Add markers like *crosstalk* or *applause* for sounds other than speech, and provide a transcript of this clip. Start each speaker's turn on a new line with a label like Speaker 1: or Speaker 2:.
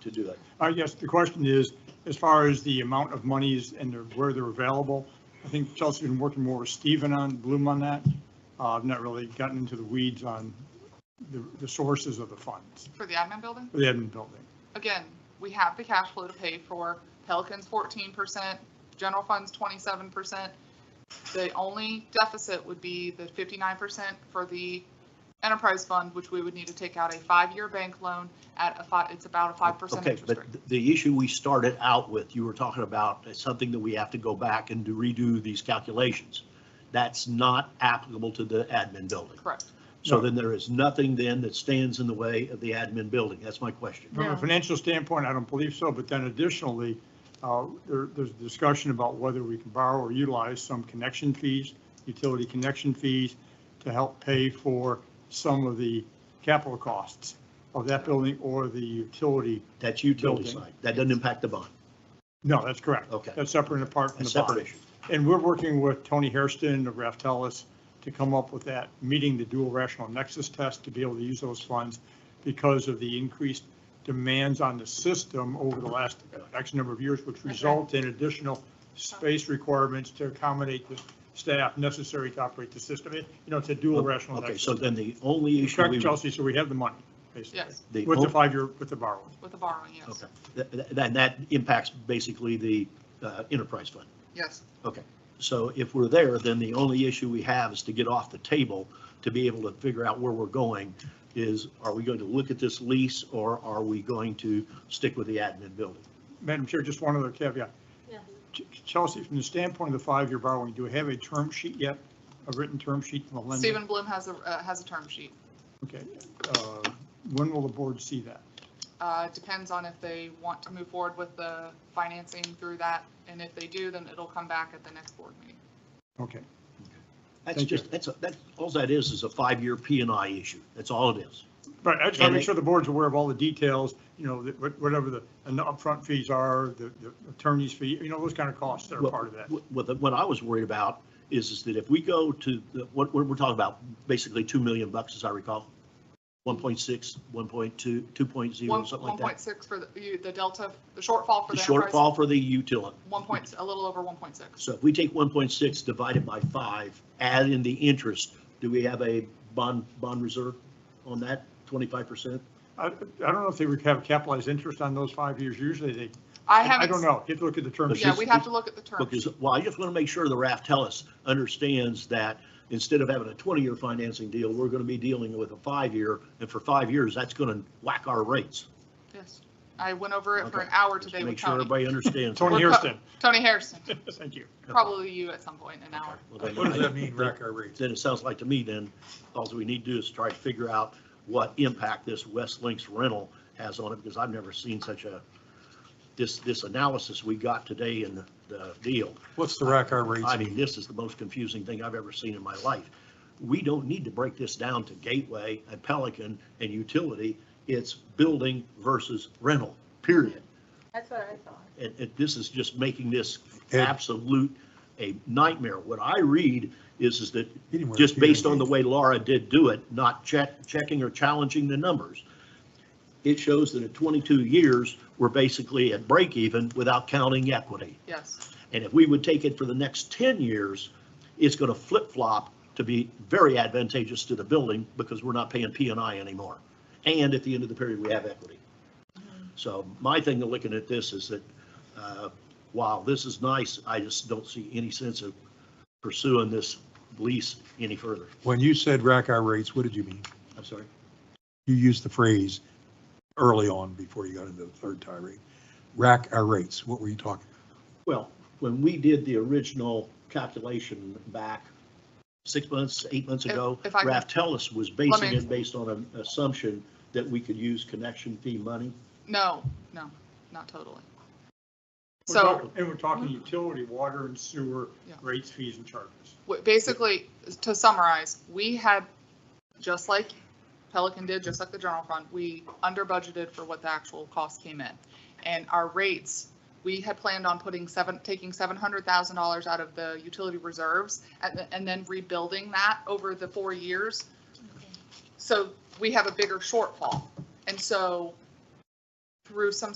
Speaker 1: to do that.
Speaker 2: I guess the question is, as far as the amount of monies and the- where they're available, I think Chelsea's been working more with Stephen on, Bloom on that. Uh, I've not really gotten into the weeds on the, the sources of the funds
Speaker 3: for the admin building.
Speaker 2: for the Edmund Building.
Speaker 3: Again, we have the cash flow to pay for Pelican's fourteen percent, general funds twenty-seven percent. The only deficit would be the fifty-nine percent for the enterprise fund, which we would need to take out a five-year bank loan at a five, it's about a five percent
Speaker 1: Okay,
Speaker 3: interest
Speaker 1: but
Speaker 3: rate.
Speaker 1: th- the issue we started out with, you were talking about, is something that we have to go back and do- redo these calculations. That's not applicable to the admin building.
Speaker 3: Correct.
Speaker 1: So
Speaker 2: No.
Speaker 1: then there is nothing then that stands in the way of the admin building. That's my question.
Speaker 2: From
Speaker 3: No.
Speaker 2: a financial standpoint, I don't believe so, but then additionally, uh, there, there's discussion about whether we can borrow or utilize some connection fees, utility connection fees, to help pay for some of the capital costs of that building or the utility.
Speaker 1: That's utility
Speaker 2: Building.
Speaker 1: side. That doesn't impact the bond.
Speaker 2: No, that's correct.
Speaker 1: Okay.
Speaker 2: That's separate and apart from
Speaker 1: That's
Speaker 2: the
Speaker 1: a separate
Speaker 2: bond.
Speaker 1: issue.
Speaker 2: And we're working with Tony Hairston of Raftelis to come up with that, meeting the dual rational nexus test to be able to use those funds because of the increased demands on the system over the last X number of years, which result in additional space requirements to accommodate the staff necessary to operate the system. It- You know, it's a dual rational
Speaker 1: Okay,
Speaker 2: nexus.
Speaker 1: so then the only issue. we
Speaker 2: Correct,
Speaker 1: would-
Speaker 2: Chelsea, so we have the money, basically,
Speaker 3: Yes,
Speaker 1: the
Speaker 2: with the
Speaker 1: on-
Speaker 2: five-year, with the borrowing.
Speaker 3: with the borrowing, yes.
Speaker 1: Okay, Th- th- then that impacts basically the uh, enterprise fund.
Speaker 3: Yes.
Speaker 1: So if we're there, then the only issue we have is to get off the table to be able to figure out where we're going is, are we going to look at this lease or are we going to stick with the admin building?
Speaker 2: Madam Chair, just one other caveat.
Speaker 4: Yeah.
Speaker 2: Ch- Chelsea, from the standpoint of the five-year borrowing, do we have a term sheet yet, a written term sheet from the lender?
Speaker 3: Stephen Bloom has a, uh, has a term sheet.
Speaker 2: Okay, uh, when will the board see that?
Speaker 3: Uh, it depends on if they want to move forward with the financing through that, and if they do, then it'll come back at the next board meeting.
Speaker 2: Okay,
Speaker 1: That's
Speaker 2: Thank you.
Speaker 1: just, that's, a- that's, all that is, is a five-year P and I issue. That's all it is.
Speaker 2: but I just want to
Speaker 1: And
Speaker 2: make
Speaker 1: it-
Speaker 2: sure the board's aware of all the details, you know, that what- whatever the and the upfront fees are, the the attorney's fee, you know, those kind of costs that are
Speaker 1: Well,
Speaker 2: part of that.
Speaker 1: What- What, what I was worried about is, is that if we go to, the- what, what we're talking about, basically 2 million bucks, as I recall, 1.6, 1.2, 2.0, something like
Speaker 3: One
Speaker 1: that.
Speaker 3: point six for the, you- the delta, the shortfall for
Speaker 1: The
Speaker 3: the enterprise.
Speaker 1: shortfall for the utility.
Speaker 3: One point, a little over one point six.
Speaker 1: So if we take 1.6 divided by 5, add in the interest, do we have a bond, bond reserve on that, 25%?
Speaker 2: I I don't know if they would have capitalized interest on those five years, usually they,
Speaker 3: I haven't.
Speaker 2: I don't know, you have to look at the term
Speaker 1: But
Speaker 2: sheet.
Speaker 3: Yeah, we have to look at the term.
Speaker 1: Because, well, I just want to make sure the Raftellus understands that instead of having a 20-year financing deal, we're going to be dealing with a five-year, and for five years, that's going to whack our rates.
Speaker 3: Yes. I went over it for an
Speaker 1: Okay.
Speaker 3: hour
Speaker 1: Just
Speaker 3: today with
Speaker 1: Make sure
Speaker 3: Tony.
Speaker 1: everybody understands.
Speaker 2: Tony
Speaker 3: We're co-
Speaker 2: Hairston,
Speaker 3: Tony Harrison,
Speaker 1: *laughs*
Speaker 2: thank you.
Speaker 3: probably you at some point in an hour.
Speaker 1: Okay.
Speaker 5: What does that mean, rack our rates?
Speaker 1: Then it sounds like to me then, all we need to do is try to figure out what impact this West Links rental has on it, because I've never seen such a, this, this analysis we got today in the- the deal.
Speaker 5: What's the rack our rates
Speaker 1: I
Speaker 5: mean?
Speaker 1: mean, this is the most confusing thing I've ever seen in my life. We don't need to break this down to Gateway and Pelican and utility. It's building versus rental, period.
Speaker 4: That's what I thought.
Speaker 1: And, and this is just making this
Speaker 5: Ed.
Speaker 1: absolute a nightmare. What I read is, is that
Speaker 5: Anywhere
Speaker 1: just
Speaker 5: here.
Speaker 1: based on the way Laura did do it, not check, checking or challenging the numbers. It shows that at 22 years, we're basically at break even without counting equity.
Speaker 3: Yes.
Speaker 1: And if we would take it for the next 10 years, it's going to flip flop to be very advantageous to the building because we're not paying P and I anymore. And at the end of the period, we have equity. So my thing of looking at this is that, uh, while this is nice, I just don't see any sense of pursuing this lease any further.
Speaker 5: When you said rack our rates, what did you mean?
Speaker 1: I'm sorry.
Speaker 5: You used the phrase early on before you got into the third tirade. Rack our rates, what were you talking?
Speaker 1: Well, when we did the original calculation back six months, eight months
Speaker 3: If-
Speaker 1: ago,
Speaker 3: if I can-
Speaker 1: Raftellus was basing
Speaker 3: Let me-
Speaker 1: it based on an assumption that we could use connection fee money.
Speaker 3: No, no, not totally.
Speaker 2: We're
Speaker 3: So.
Speaker 2: talking- And we're talking utility, water and sewer
Speaker 3: Yeah.
Speaker 2: rates, fees and charges.
Speaker 3: What- Basically, to summarize, we had, just like Pelican did, just like the general fund, we under budgeted for what the actual cost came in. And our rates, we had planned on putting seven, taking seven hundred thousand dollars out of the utility reserves and, th- and then rebuilding that over the four years. So we have a bigger shortfall. And so through some